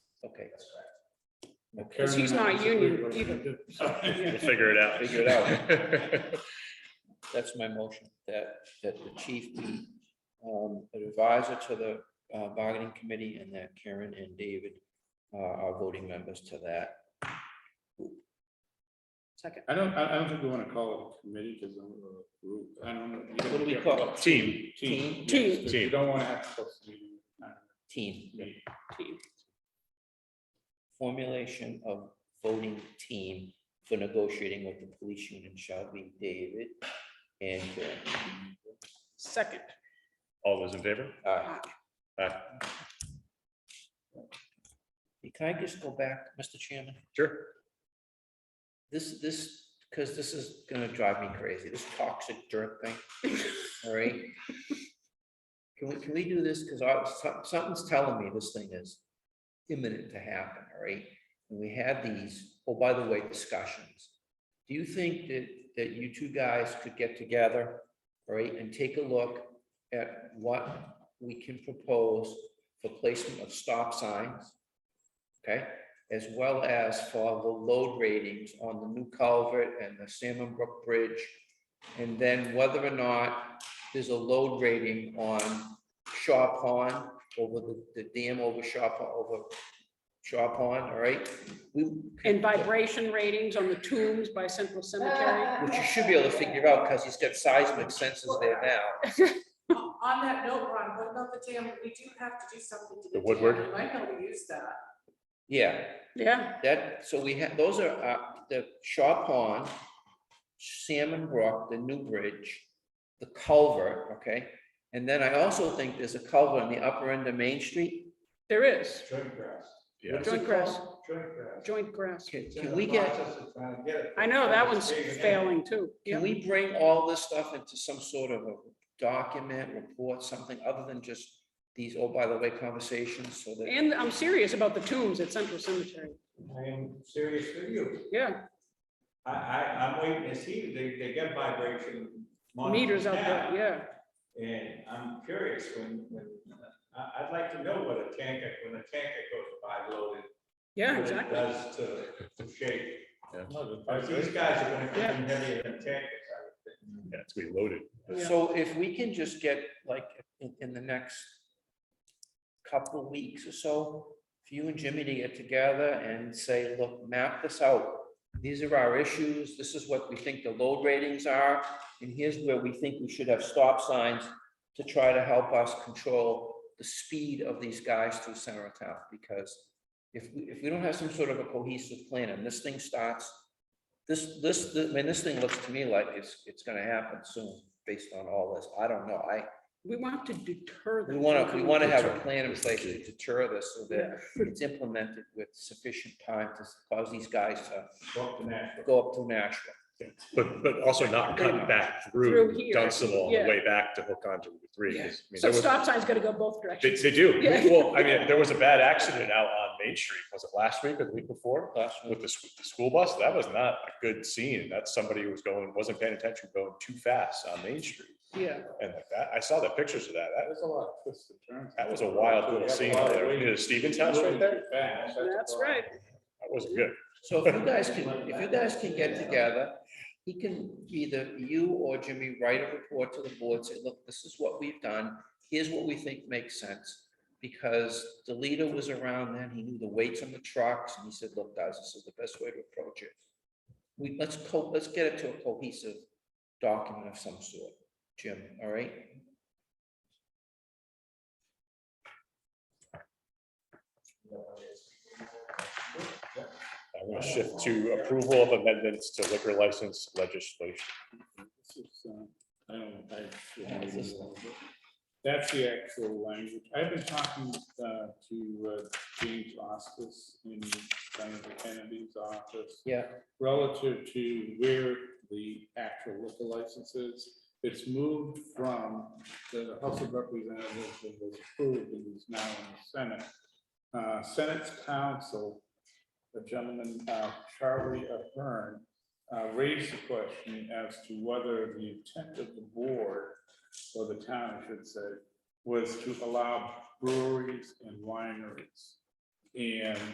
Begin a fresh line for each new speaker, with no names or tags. Okay.
Because he's not a union either.
We'll
either.
figure it out.
Figure it out.
That's my motion, that, that the chief be um, an advisor to the uh, bargaining committee and that Karen and David uh, are voting members to that.
Second.
I don't, I I don't think we want to call it a committee because I'm a group. I don't know. You gotta
What do we
be
call it?
careful.
Team.
Team.
Team.
yes, 'cause You
Team.
don't want to have to close the meeting.
Team,
Yeah.
formulation of voting team for negotiating with the police union shall be David and Karen.
Second.
All those in favor?
Uh,
Aye.
Can I just go back, Mr. Chairman?
Sure.
This, this, because this is gonna drive me crazy, this toxic jerk thing, all right? Can we, can we do this? Because I, some- something's telling me this thing is imminent to happen, all right? And we had these, oh, by the way, discussions. Do you think that, that you two guys could get together, all right, and take a look at what we can propose for placement of stop signs? Okay? as well as for the load ratings on the new culvert and the Salmon Brook Bridge. And then whether or not there's a load rating on Shaw Pond over the, the dam over Shaw, Po- over Shaw Pond, all right? We,
And vibration ratings on the tombs by Central Cemetery.
which you should be able to figure out because he's got seismic sensors there now.
On that note, Ron, what about the dam? We do have to do something to
The
the dam.
Woodward?
You might know we use that.
Yeah,
Yeah,
that, so we have, those are, uh, the Shaw Pond, Salmon Brook, the new bridge, the culvert, okay? And then I also think there's a culvert on the upper end of Main Street.
there is.
Joint grass.
Yeah.
What's it
Joint grass,
called?
Joint grass.
joint grass.
Can, can we get,
I know, that one's failing too. Yeah.
can we bring all this stuff into some sort of a document, report, something other than just these, oh, by the way, conversations, so that,
And I'm serious about the tombs at Central Cemetery.
I am serious with you.
Yeah,
I, I, I'm waiting to see, they, they get vibration. monitors
meters out
now,
there, yeah.
And I'm curious when, when, I, I'd like to know what a tanker, when a tanker goes by loaded.
Yeah,
what it
exactly.
Does to the shape. Because
That's
These guys are gonna come
Yeah.
in heavier than tankers, I would think.
Yeah, it's gonna be loaded.
Yeah.
so if we can just get, like, in, in the next couple of weeks or so, for you and Jimmy to get together and say, look, map this out. These are our issues, this is what we think the load ratings are, and here's where we think we should have stop signs to try to help us control the speed of these guys through center of town, because if, we if we don't have some sort of a cohesive plan and this thing starts, this, this, I mean, this thing looks to me like it's, it's gonna happen soon, based on all this, I don't know, I,
We want to deter them.
we want to,
from
we
coming
want to
to
have
us.
a plan in place to deter this so that it's implemented with sufficient time to cause these guys to
Walk the natural.
go up to Nashville.
But, but also not cut back
Through
through
here,
Dunstable on
yeah.
the way back to hook onto Route three. 'cause, I mean,
So
there was-
stop signs gotta go both
They,
directions.
they do.
Yeah.
Well, I mean, there was a bad accident out on Main Street. Was it last week or the week before?
Last
With the, sch- the school bus? That was not a good scene. That's somebody who was going, wasn't paying attention, going too fast on Main Street.
Yeah.
And like that, I saw the pictures of that. That was,
a lot of twists and turns.
that was a wild little scene out there. You know, Stevens House right there?
Fast, a
That's
problem.
right.
That wasn't good.
So if you guys can, if you guys can get together, he can, either you or Jimmy write a report to the board, say, look, this is what we've done. Here's what we think makes sense, because the leader was around then, he knew the weights on the trucks, and he said, look, guys, this is the best way to approach it. We, let's co, let's get it to a cohesive document of some sort, Jim, all right?
I'm gonna shift to approval of amendments to liquor license legislation.
This is, uh, I don't, I.
Yeah, it's just-
That's the actual language. I've been talking uh, to uh, James Ostis in Senator Kennedy's office
Yeah,
relative to where the actual liquor license is. It's moved from the House of Representatives and was approved and is now in the Senate. Uh, Senate's counsel, the gentleman, uh, Charlie Ahern, uh, raised the question as to whether the intent of the board, or the town, I should say, was to allow breweries and wineries. And